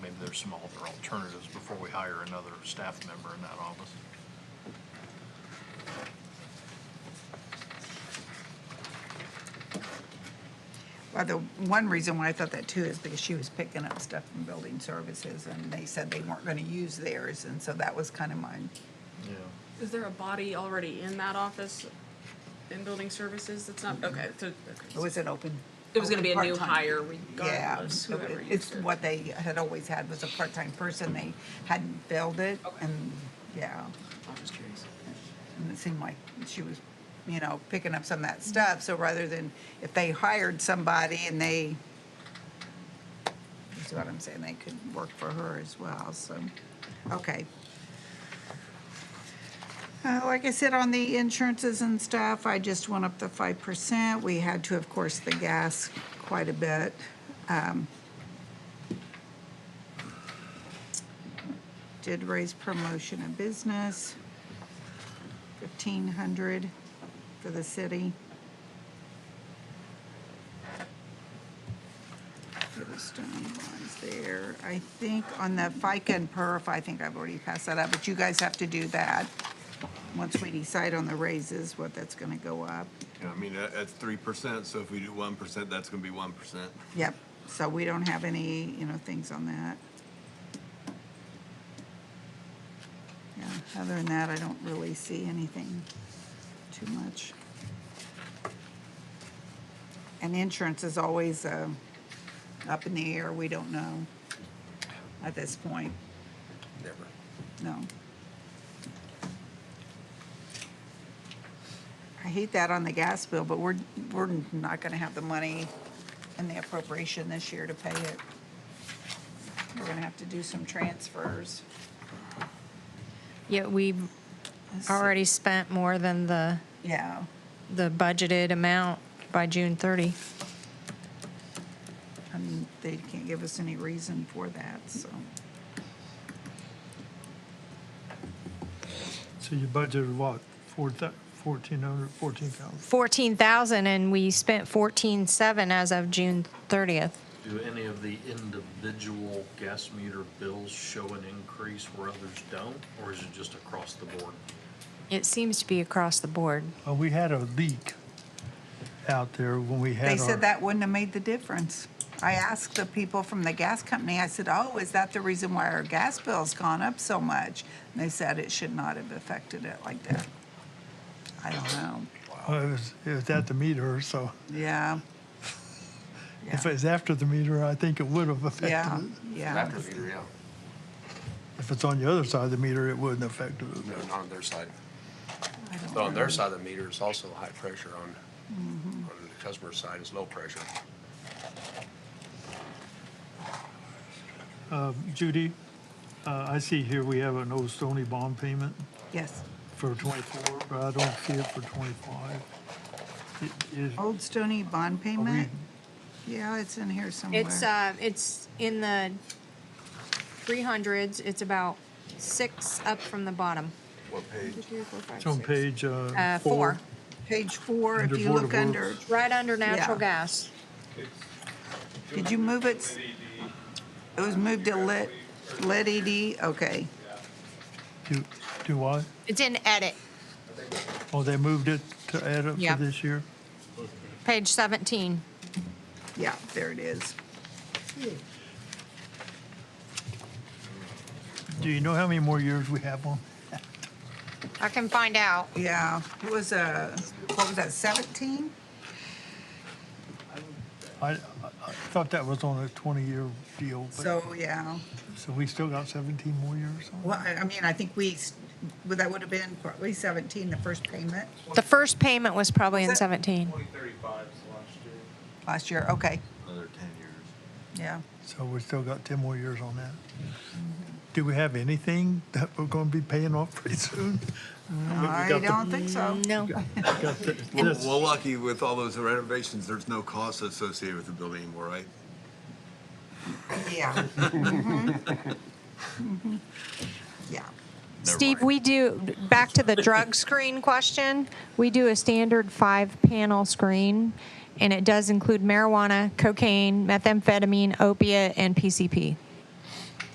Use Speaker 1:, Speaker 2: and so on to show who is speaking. Speaker 1: there's some other alternatives before we hire another staff member in that office.
Speaker 2: Well, the one reason why I thought that too is because she was picking up stuff from building services and they said they weren't gonna use theirs, and so that was kind of mine.
Speaker 1: Yeah.
Speaker 3: Is there a body already in that office in building services that's not, okay, so. okay.
Speaker 2: It was an open.
Speaker 3: It was gonna be a new
Speaker 2: part-time.
Speaker 3: hire
Speaker 2: Yeah,
Speaker 3: regardless,
Speaker 2: so it-
Speaker 3: whoever used
Speaker 2: it's
Speaker 3: it.
Speaker 2: what they had always had was a part-time person. They hadn't filled it
Speaker 3: Okay.
Speaker 2: and, yeah.
Speaker 3: I'm just curious.
Speaker 2: And it seemed like she was, you know, picking up some of that stuff. So rather than, if they hired somebody and they, you see what I'm saying, they could work for her as well, so, okay. Uh, like I said, on the insurances and stuff, I just went up the five percent. We had to, of course, the gas quite a bit. Um, Did raise promotion of business fifteen hundred for the city. Yellowstone bonds there. I think on the FICA and perf, I think I've already passed that up, but you guys have to do that. Once we decide on the raises, what that's gonna go up.
Speaker 4: Yeah, I mean, that- that's three percent, so if we do one percent, that's gonna be one percent.
Speaker 2: Yep, so we don't have any, you know, things on that. Yeah, other than that, I don't really see anything too much. And insurance is always uh, up in the air, we don't know at this point,
Speaker 4: Never.
Speaker 2: no. I hate that on the gas bill, but we're, we're not gonna have the money in the appropriation this year to pay it. We're gonna have to do some transfers.
Speaker 5: Yeah, we've already spent more than the,
Speaker 2: Yeah,
Speaker 5: the budgeted amount by June 30.
Speaker 2: and they can't give us any reason for that, so.
Speaker 6: So you budgeted what, four thou- 1,400, 14,000?
Speaker 5: 14,000 and we spent 14,7 as of June 30th.
Speaker 1: Do any of the individual gas meter bills show an increase where others don't, or is it just across the board?
Speaker 5: It seems to be across the board.
Speaker 6: Uh, We had a leak out there when we had our.
Speaker 2: They said that wouldn't have made the difference. I asked the people from the gas company, I said, oh, is that the reason why our gas bill's gone up so much? And they said it should not have affected it like that. I don't know,
Speaker 6: Well, uh, It was, it was at the meter, so
Speaker 2: yeah.
Speaker 6: if
Speaker 2: Yeah.
Speaker 6: it's after the meter, I think it would have
Speaker 2: Yeah,
Speaker 6: affected it.
Speaker 2: yeah.
Speaker 7: meter, yeah.
Speaker 6: If it's on the other side of the meter, it wouldn't affect it.
Speaker 7: No, not on their side.
Speaker 2: I don't
Speaker 7: So on their
Speaker 2: know. Mm-hmm.
Speaker 7: side of the meter, it's also high pressure on, on the customer's side, it's low pressure.
Speaker 6: Judy, uh, I see here we have an old Stony bond payment
Speaker 2: Yes.
Speaker 6: for 24, but I don't see it for 25. It- is- are
Speaker 2: Old Stony bond
Speaker 6: we-
Speaker 2: payment? Yeah, it's in here somewhere.
Speaker 5: It's, uh, it's in the 300s. It's about six up from the bottom.
Speaker 4: What page?
Speaker 6: It's on page
Speaker 5: Uh,
Speaker 6: uh,
Speaker 5: four,
Speaker 6: four.
Speaker 2: Page four, if
Speaker 6: Under
Speaker 2: you
Speaker 6: Board
Speaker 2: look
Speaker 6: of
Speaker 2: under,
Speaker 6: Works.
Speaker 5: right under natural
Speaker 2: Yeah.
Speaker 5: gas.
Speaker 2: did you move it? It was moved to lit, lit ED, okay.
Speaker 6: Do do what?
Speaker 5: It's in edit,
Speaker 6: Oh, they moved it to add up
Speaker 5: Yeah.
Speaker 6: for this year?
Speaker 5: page 17.
Speaker 2: Yeah, there it is.
Speaker 6: Do you know how many more years we have on?
Speaker 5: I can find out.
Speaker 2: Yeah, it was uh what was that, 17?
Speaker 6: I, I I thought that was on a 20-year deal, but,
Speaker 2: So, yeah,
Speaker 6: so we still got 17 more years on?
Speaker 2: well, I I mean, I think we, s- well, that would have been probably 17, the first payment
Speaker 5: The first payment was probably in
Speaker 2: Was it-
Speaker 5: 17.
Speaker 8: 2035 is the last year.
Speaker 2: last year, okay,
Speaker 1: Another ten years.
Speaker 2: yeah.
Speaker 6: So we still got 10 more years on that. Do we have anything that we're going to be paying off pretty soon?
Speaker 2: I
Speaker 6: got the-
Speaker 2: don't think so.
Speaker 5: No.
Speaker 6: Got the-
Speaker 4: Well,
Speaker 6: this-
Speaker 4: well, lucky with all those renovations, there's no cost associated with the building anymore, right?
Speaker 2: Yeah. Mhm. Mhm. Yeah,
Speaker 4: Never
Speaker 5: Steve,
Speaker 4: mind.
Speaker 5: we do, back to the drug screen question, we do a standard five-panel screen, and it does include marijuana, cocaine, methamphetamine, opiate, and PCP.